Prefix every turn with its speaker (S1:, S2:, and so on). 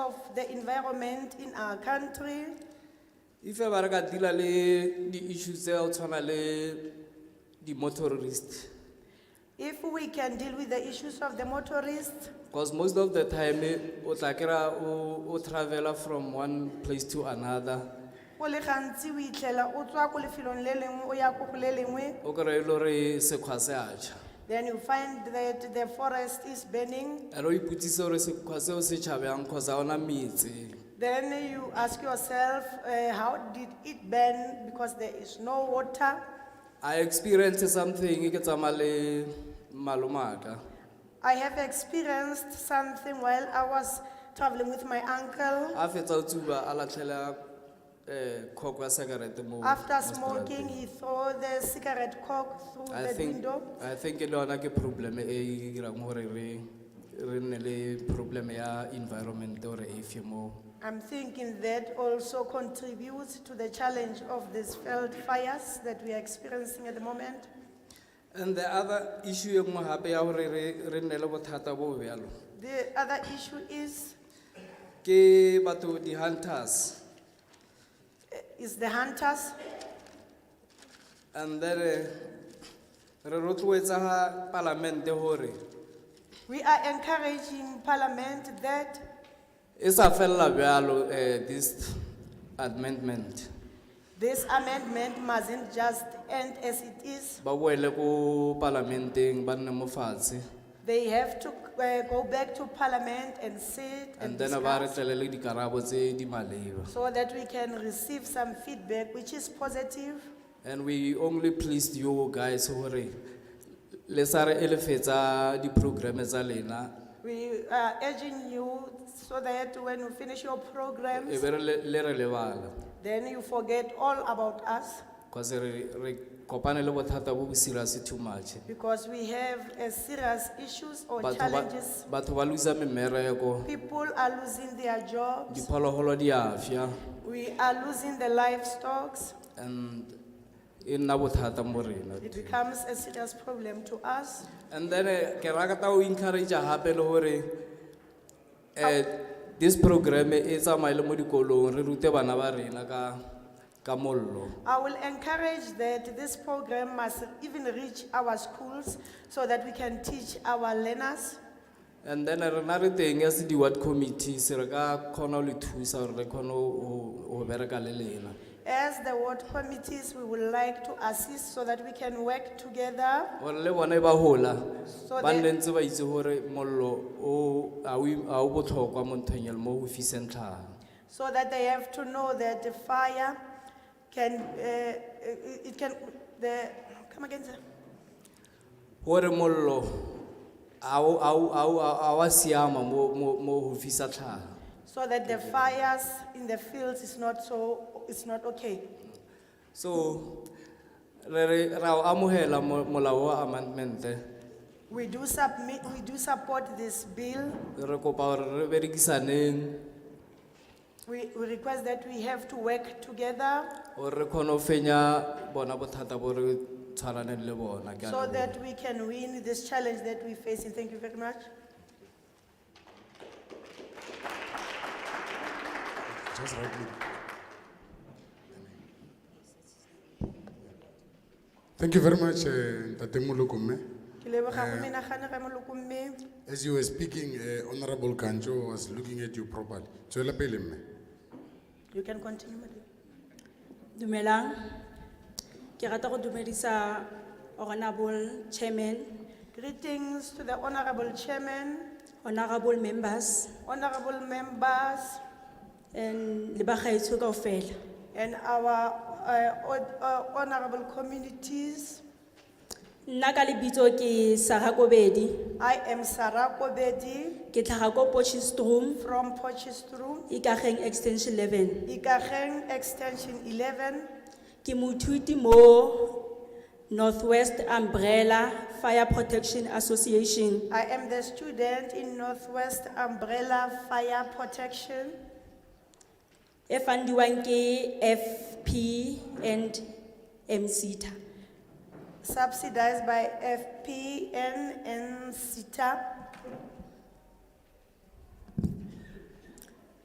S1: of the environment in our country.
S2: ife ba re ka deala le di-issue tse o tshwana le di-motorist
S1: If we can deal with the issues of the motorists,
S2: because most of the time eh, o tla kry-a o o travela from one place to another
S1: go le gantsi o itlhela o tswa ko lefelong le lengwe o ya ko go le lengwe
S2: o kry-e le gore sekgwa se a ja
S1: then you find that the forest is burning
S2: and o ipotsise gore sekgwa seo se tšhabjang kgotsa ona metse
S1: then you ask yourself uh, how did it burn because there is no water
S2: i experience something ke tsamaya le malomaka
S1: i have experienced something while i was traveling with my uncle
S2: a fetsa o tsuba a latlhela um kgoko ya sekerete mo
S1: after
S2: mo
S1: smoking he
S2: seterateng.
S1: threw the cigarette cork through
S2: I
S1: the
S2: think,
S1: window
S2: I think le yona ke problem e dirang gore re re nne le problem ya environment gore e fie mo
S1: i'm thinking that also contributes to the challenge of these field fires that we are experiencing at the moment
S2: and the other issue e nngwe gape ya gore re re nne le bothata bo bjalo
S1: the other issue is
S2: ke batho di-hunters
S1: eh, is the hunters
S2: and then eh, re rotloetsa ga palamente gore
S1: We are encouraging Parliament that
S2: e sa felela bjalo um this amendment
S1: this amendment mustn't just end as it is.
S2: ba boele ko palamenteng ba nne mo fatshe
S1: They have to uh, go back to Parliament and sit and
S2: and then ba re
S1: discuss
S2: tlelele dikarabo tse di maleba
S1: so that we can receive some feedback which is positive.
S2: And we only pleased you guys hore le sa re elefetsa di-programme tsa lena
S1: We are urging you so that when you finish your
S2: e
S1: programs,
S2: be re le le re lebala
S1: then you forget all about us
S2: because re re kopane le bothata bo bo serious too much
S1: because we have uh, serious issues or
S2: Batho ba-
S1: challenges.
S2: batho ba losa mmereko
S1: People are losing their jobs.
S2: diphologolo di a fya
S1: We are losing the livestock.
S2: and e nna bothata mo rena
S1: It becomes a serious problem to us.
S2: and then eh, ke rakata o encouragea gape le gore um this programme e tsamaye le mo dikolong re rute bana ba rena ka ka mollo
S1: I will encourage that this program must even reach our schools so that we can teach our learners.
S2: and then rena re teng as di-word committees re ka kgona ho le thusa gore re kgone ho- ho ho bereka le lena
S1: As the ward committees, we would like to assist so that we can work together.
S2: gore le bone ba hola
S1: So
S2: ba
S1: they-
S2: nne ntse ba itse gore mollo o- a o im- a o botlhokwa mo nthong ya le mo go fiseng tlhaga
S1: so that they have to know that the fire can, uh, it it can, the, come again, sir?
S2: gore mollo a o- a o- a o- a wa siama mo- mo mo go fisa tlhaga
S1: So that the fires in the fields is not so, it's not okay.
S2: so re re- ra o amogela mo- molao wa amendmente
S1: We do submit, we do support this bill.
S2: re kopa gore re berekisaneng
S1: We, we request that we have to work together
S2: gore re kgone go fenya bona bothata bo re tshwaraneng le bona ke a
S1: so
S2: leboha.
S1: that we can win this challenge that we're facing. Thank you very much.
S3: Just right now. Thank you very much, eh, Ntate Molokome.
S1: Ke leboga go menagane ga maloko mme.
S3: As you were speaking, eh, Honorable Kanjo was looking at you properly. Tswela pele mme.
S1: You can continue. madam.
S4: Dumelang, ke rata go dumedisa honorable chairman,
S1: Greetings to the honorable chairman,
S4: honorable members
S1: honorable members,
S4: and le bagaetsho kaofela.
S1: and our uh, hon- uh, honorable communities.
S4: Nna ka lebitso ke Sarah Kobedi,
S1: I am Sarah Kobedi
S4: ke tlhaga ko Potchefstroom,
S1: from Porchestrum,
S4: Ikageng Extension 11.
S1: Ikageng Extension 11.
S4: Ke moithuti mo Northwest Umbrella Fire Protection Association.
S1: I am the student in Northwest Umbrella Fire Protection.
S4: E fundiwang ke FP and MCTA.
S1: subsidized by FPN and CETA.